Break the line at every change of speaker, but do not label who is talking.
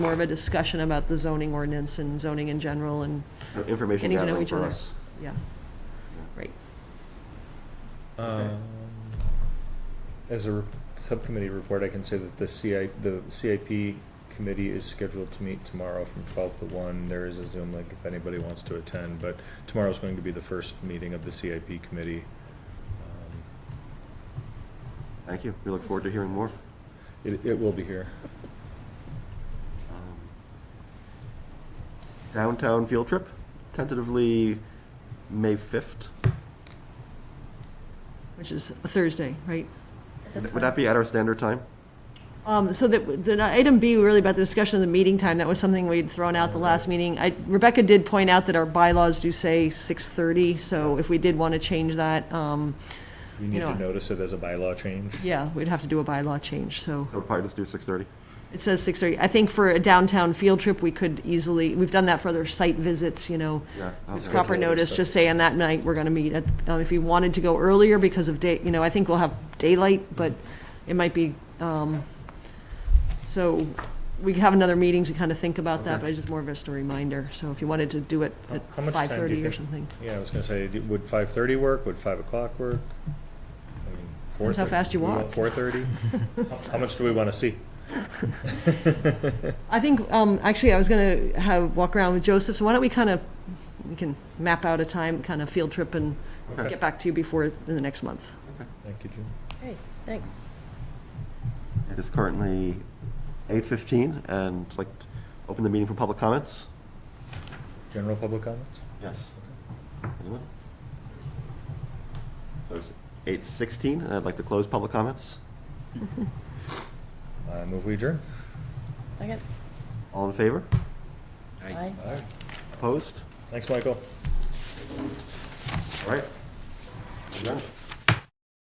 more of a discussion about the zoning ordinance and zoning in general and,
Information
Getting to know
gathering
each
for
other.
us.
yeah. Right.
Okay.
Um, As a re- subcommittee report, I can say that the CI, the CIP committee is scheduled to meet tomorrow from twelve to one. There is a Zoom link if anybody wants to attend, but tomorrow's going to be the first meeting of the CIP committee. Um,
Thank you. We look forward to hearing more.
It, it will be here.
Um, Downtown field trip, tentatively May 5th.
Which is a Thursday, right?
Would that be at our standard time?
Um, so that, the item B, really about the discussion of the meeting time, that was something we'd thrown out the last meeting. I, Rebecca did point out that our bylaws do say six thirty, so if we did want to change that, um,
We need
know-
to notice it as a bylaw change.
yeah, we'd have to do a bylaw change, so.
I would probably just do 6:30.
It says six thirty. I think for a downtown field trip, we could easily, we've done that for other site visits, you know.
Yeah.
Just
okay.
proper
Schedule it,
notice,
so-
just say on that night, we're gonna meet at, um, if you wanted to go earlier because of day, you know, I think we'll have daylight, but it might be, um, so we have another meeting to kind of think about that, but it's just more of just a reminder. So if you wanted to do it
How-
at
how much time
five
do you
thirty or
think-
something.
Yeah, I was gonna say, d- would five thirty work? Would five o'clock work? I mean,
Depends how
4:30.
fast you
Do we
walk.
Four thirty? How much do we wanna see?
I think, um, actually, I was gonna have, walk around with Joseph, so why don't we kind of, we can map out a time, kind of field trip and
Okay.
get back to you before, in the next month.
Thank you, Jim.
Great, thanks.
It is currently 8:15 and I'd like, to open the meeting for public comments?
General public comments?
Yes. Anyone? So it's 8:16 and I'd like to close public comments.
I move we adjourn.
Second?
All in favor?
Aye.
Opposed?
Thanks, Michael.
All right. Adjourned.